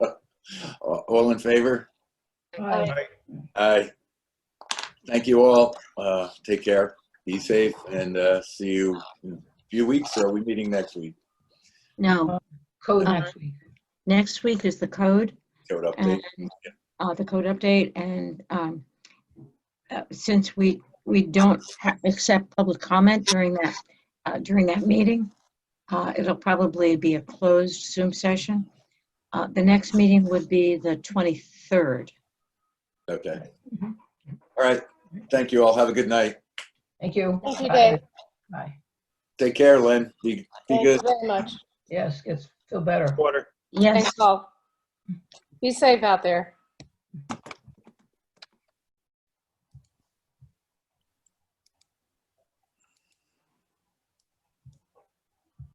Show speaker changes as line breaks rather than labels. Uh, All in favor?
Aye.
Aye. Thank you all. Uh, Take care. Be safe and uh, see you in a few weeks. Or Are we meeting next week?
No,
Code
Aye.
next week.
next week is the code
Code update.
and, uh, the code update and, um, uh, since we, we don't ha- accept public comment during that, uh, during that meeting, uh, it'll probably be a closed Zoom session. Uh, the next meeting would be the 23rd.
Okay. All right. Thank you all. Have a good night.
Thank you.
Thank you,
Bye.
Dave.
Bye.
Take care, Lynn. Be be
Thank you
good.
very much.
Yes, yes, feel better.
Quarter.
Yes.
Thanks all. Be safe out there.